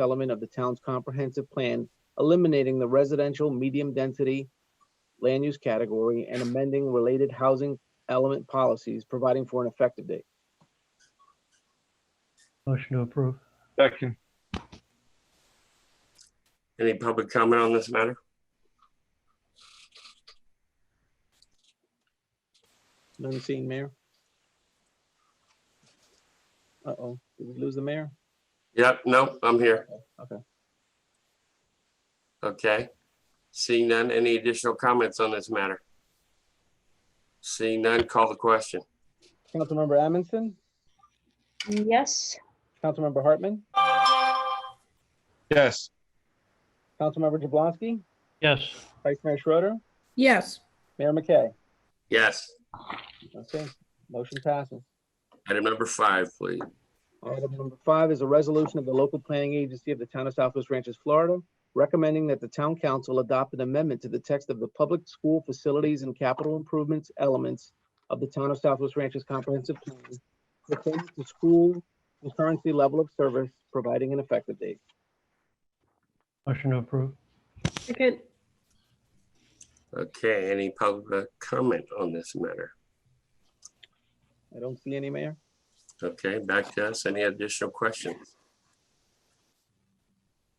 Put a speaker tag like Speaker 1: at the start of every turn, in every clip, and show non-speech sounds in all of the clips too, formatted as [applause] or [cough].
Speaker 1: element of the town's comprehensive plan, eliminating the residential medium-density land use category and amending related housing element policies, providing for an effective date.
Speaker 2: Motion to approve.
Speaker 3: Second.
Speaker 4: Any public comment on this matter?
Speaker 1: None seen, Mayor? Uh-oh, did we lose the mayor?
Speaker 4: Yep, no, I'm here.
Speaker 1: Okay.
Speaker 4: Okay. Seeing none, any additional comments on this matter? Seeing none, call the question.
Speaker 1: Councilmember Amundson,
Speaker 5: Yes.
Speaker 1: Councilmember Hartman,
Speaker 3: Yes.
Speaker 1: Councilmember Jablonski,
Speaker 2: Yes.
Speaker 1: Vice Mayor Schroeder,
Speaker 6: yes.
Speaker 1: Mayor McKay.
Speaker 4: Yes,
Speaker 1: Okay, motion passes.
Speaker 4: item number five, please.
Speaker 1: Item number five is a resolution of the local planning agency of the town of Southwest Ranches, Florida, recommending that the town council adopt an amendment to the text of the public school facilities and capital improvements elements of the town of Southwest Ranches Comprehensive Plan pertaining to school concurrency level of service, providing an effective date.
Speaker 2: Motion to approve.
Speaker 5: Second.
Speaker 4: Okay, any public comment on this matter?
Speaker 1: I don't see any, Mayor.
Speaker 4: Okay, back to us. Any additional questions?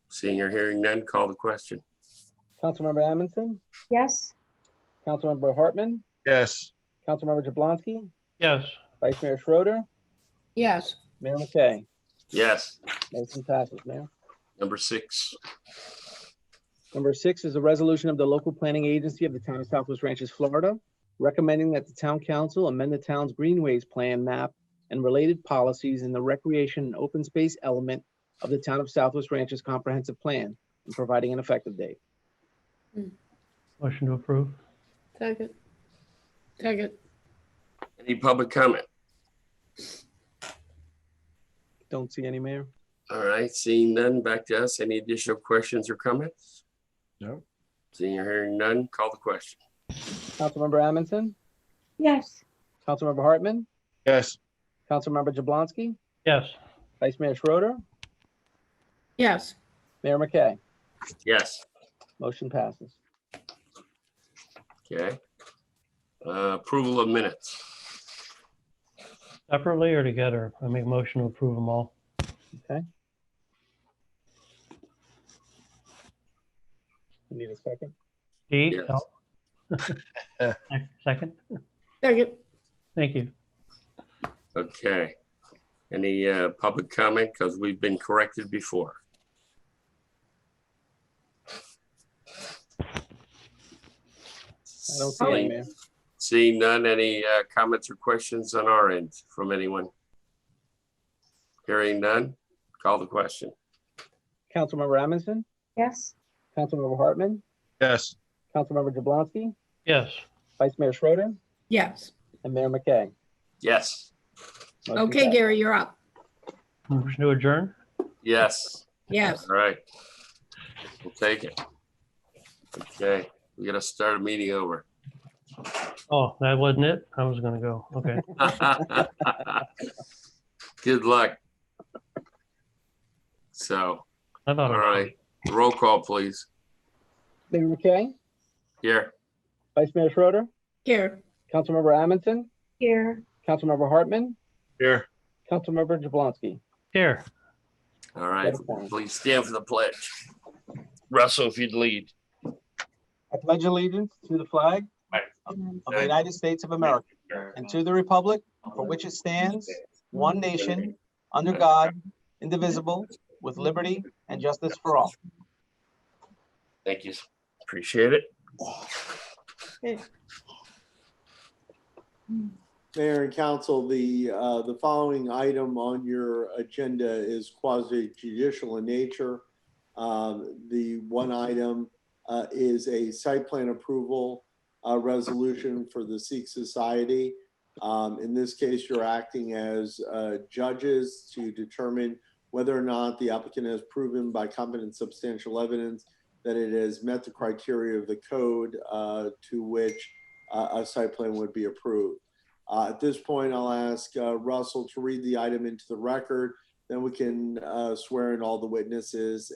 Speaker 4: Seeing or hearing none, call the question.
Speaker 1: Councilmember Amundson,
Speaker 5: Yes.
Speaker 1: Councilmember Hartman,
Speaker 3: Yes.
Speaker 1: Councilmember Jablonski,
Speaker 2: Yes.
Speaker 1: Vice Mayor Schroeder,
Speaker 6: Yes.
Speaker 1: Mayor McKay.
Speaker 4: Yes,
Speaker 1: Motion passes, Mayor.
Speaker 4: number six.
Speaker 1: Number six is a resolution of the local planning agency of the town of Southwest Ranches, Florida, recommending that the town council amend the town's greenways plan map and related policies in the recreation and open space element of the town of Southwest Ranches comprehensive plan and providing an effective date.
Speaker 2: Motion to approve.
Speaker 6: Second. Second.
Speaker 4: Any public comment?
Speaker 1: Don't see any, Mayor.
Speaker 4: All right, seeing none, back to us. Any additional questions or comments?
Speaker 3: No.
Speaker 4: Seeing or hearing none, call the question.
Speaker 1: Councilmember Amundson,
Speaker 5: Yes.
Speaker 1: Councilmember Hartman,
Speaker 3: Yes.
Speaker 1: Councilmember Jablonski,
Speaker 2: Yes.
Speaker 1: Vice Mayor Schroeder,
Speaker 6: Yes.
Speaker 1: Mayor McKay.
Speaker 4: Yes,
Speaker 1: Motion passes.
Speaker 4: okay. Uh, Approval of minutes.
Speaker 2: Separately or together? I make motion to approve them all.
Speaker 1: You Need a second?
Speaker 2: D?
Speaker 4: Yes.
Speaker 2: no? [laughs] Second?
Speaker 6: Second.
Speaker 2: Thank you.
Speaker 4: Okay. Any uh, public comment? Because we've been corrected before.
Speaker 1: I don't see any, Mayor.
Speaker 4: Seeing none, any uh, comments or questions on our end from anyone? Hearing none, call the question.
Speaker 1: Councilmember Amundson,
Speaker 5: Yes.
Speaker 1: Councilmember Hartman,
Speaker 3: Yes.
Speaker 1: Councilmember Jablonski,
Speaker 2: Yes.
Speaker 1: Vice Mayor Schroeder,
Speaker 6: Yes.
Speaker 1: And Mayor McKay.
Speaker 4: Yes,
Speaker 1: Motion
Speaker 6: Okay,
Speaker 1: passed.
Speaker 6: Gary, you're up.
Speaker 2: Motion to adjourn?
Speaker 4: yes,
Speaker 6: Yes.
Speaker 4: all right. We'll take it. Okay, we gotta start a meeting over. [laughs]
Speaker 2: Oh, that wasn't it? I was gonna go. Okay.
Speaker 4: Good luck. So,
Speaker 2: I thought. I
Speaker 4: all
Speaker 2: was-
Speaker 4: right, roll call, please.
Speaker 1: Mayor McKay,
Speaker 4: Here,
Speaker 1: Vice Mayor Schroeder,
Speaker 6: Here.
Speaker 1: Councilmember Amundson,
Speaker 5: Here.
Speaker 1: Councilmember Hartman,
Speaker 3: Here.
Speaker 1: Councilmember Jablonski.
Speaker 2: Here.
Speaker 4: all right, please stand for the pledge. Russell, if you'd lead.
Speaker 1: I pledge allegiance to the flag of the United States of America and to the republic for which it stands, one nation, under God, indivisible, with liberty and justice for all.
Speaker 4: Thank you. Appreciate it.
Speaker 7: Mayor and council, the, uh, the following item on your agenda is quasi judicial in nature. Um, The one item uh, is a site plan approval uh, resolution for the Sikh Society. Um, In this case, you're acting as uh, judges to determine whether or not the applicant has proven by competent substantial evidence that it has met the criteria of the code uh, to which uh, a site plan would be approved. Uh, At this point, I'll ask uh, Russell to read the item into the record, Then we can uh, swear in all the witnesses